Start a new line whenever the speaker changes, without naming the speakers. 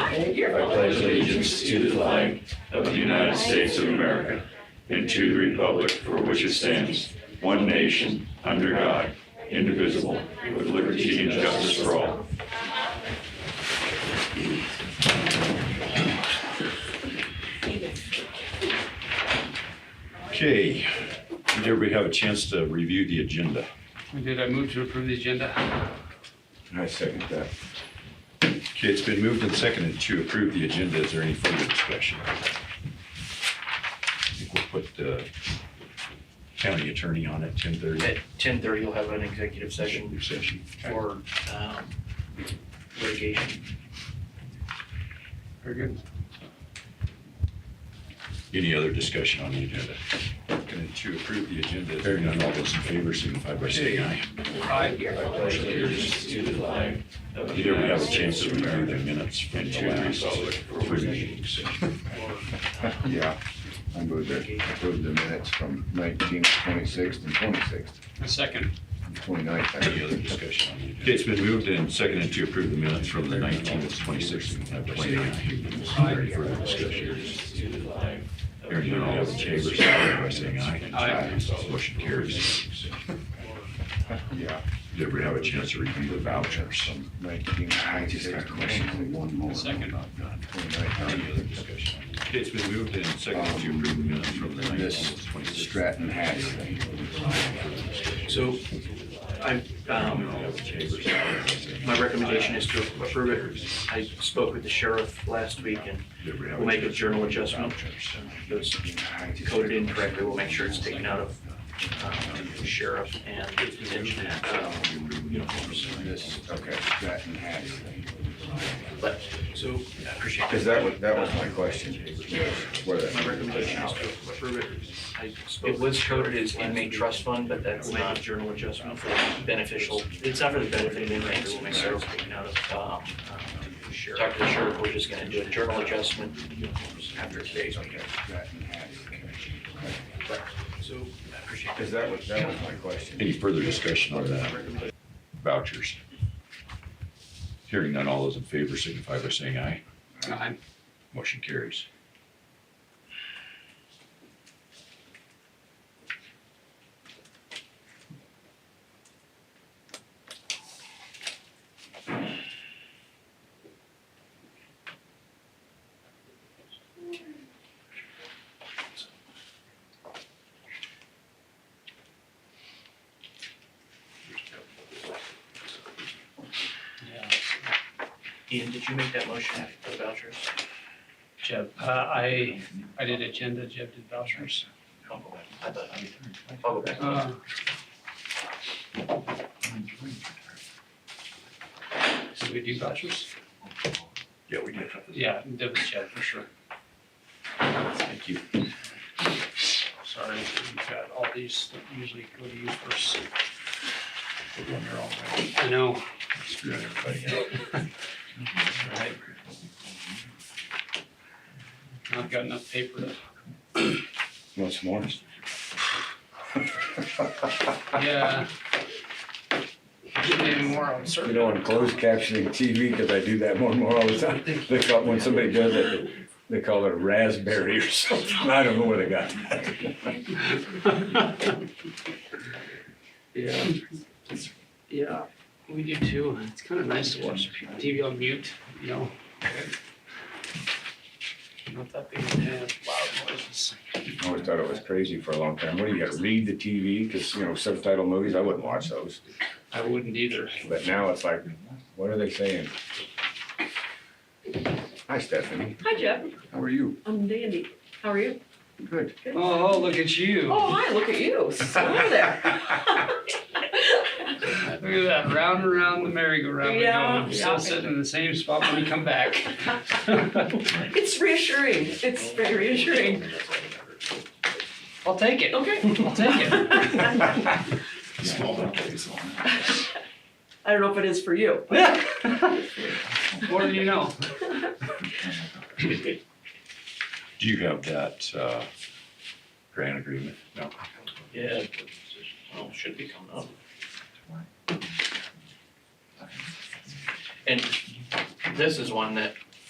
I pledge allegiance to the flag of the United States of America and to the republic for which it stands, one nation, under God, indivisible, with liberty and justice for all. Okay, did everybody have a chance to review the agenda?
We Did I move to approve the agenda?
I second that. Okay, it's been moved and seconded to approve the agenda. Is there any further discussion? I think we'll put the county attorney on at ten thirty.
At ten thirty, you'll have an executive session
Session.
for um, litigation.
Very good.
Any other discussion on the agenda? Going to approve the agenda. Is there none, all those in favor signify by saying aye. Either we have a chance to review the minutes from the last three meetings.
Yeah, I move to approve the minutes from nineteenth, twenty-sixth, and twenty-sixth,
A second.
and twenty-ninth.
Any other discussion on the agenda? Okay, it's been moved and seconded to approve the minutes from the nineteenth, twenty-sixth, and twenty-ninth. Any further discussion? Hearing none, all those in favor, signify by saying aye.
Aye.
Motion carries.
Yeah,
Did everybody have a chance to review the vouchers?
nineteenth, twenty-sixth,
A
twenty-ninth.
second.
uh, Any other discussion? Okay, it's been moved and seconded to approve the minutes from the nineteenth,
Um, This
twenty-sixth.
Stratton Hatch thing.
So I, um, my recommendation is to approve it. I spoke with the sheriff last week and we'll make a journal adjustment. It was coded incorrectly. We'll make sure it's taken out of um, sheriff and detention, um, uniforms.
This, okay, Stratton Hatch thing.
But, so I appreciate that.
Cause that was, that was my question. Where that-
My recommendation is to approve it. It was coded as inmate trust fund, but that's not journal adjustment for beneficial, it's not for the benefit of inmates, we'll make sure it's taken out of, um, Talk to the sheriff, we're just gonna do a journal adjustment after today's meeting.
Stratton Hatch thing.
So, I appreciate
Cause that was, that was my question.
Any further discussion on that?
that.
Vouchers. Hearing none, all those in favor signify by saying aye.
Aye.
Motion carries.
Ian, did you make that motion for the vouchers?
Jeb, uh, I, I did agenda, Jeb did vouchers.
I'll Oh, go back. I thought I did. I'll go back.
Uh, Did we do vouchers?
Yeah, we did.
Yeah, that was Jeb for sure.
Thank you.
Sorry, we've got all these that usually go to you first.
Put one there all right.
I know.
Screwing everybody up.
I've got enough paper to,
Want some more?
yeah. Give me more, I'm certain.
You know, on closed captioning TV, because I do that more and more all the time, they call, when somebody does it, they call it a raspberry or something. I don't know where they got that.
Yeah. Yeah, we do too. It's kind of nice to watch TV on mute, you know? Not that big of a fan of loud noises.
I always thought it was crazy for a long time. What do you got, read the TV? Because, you know, subtitle movies, I wouldn't watch those.
I wouldn't either.
But now it's like, what are they saying? Hi, Stephanie.
Hi Jeff,
How are you?
I'm Dandy. How are you?
Good.
Oh, look at you.
Oh, hi, look at you. Slow there.
Look at that, round and round the merry-go-round. we go.
Yeah,
We're Still
yeah.
sitting in the same spot when we come back.
It's reassuring. It's very reassuring.
I'll take it.
Okay.
I'll take it.
I don't know if it is for you.
What do you know?
Do you have that, uh, grant agreement? No.
Yeah, well, should be coming up. And this is one that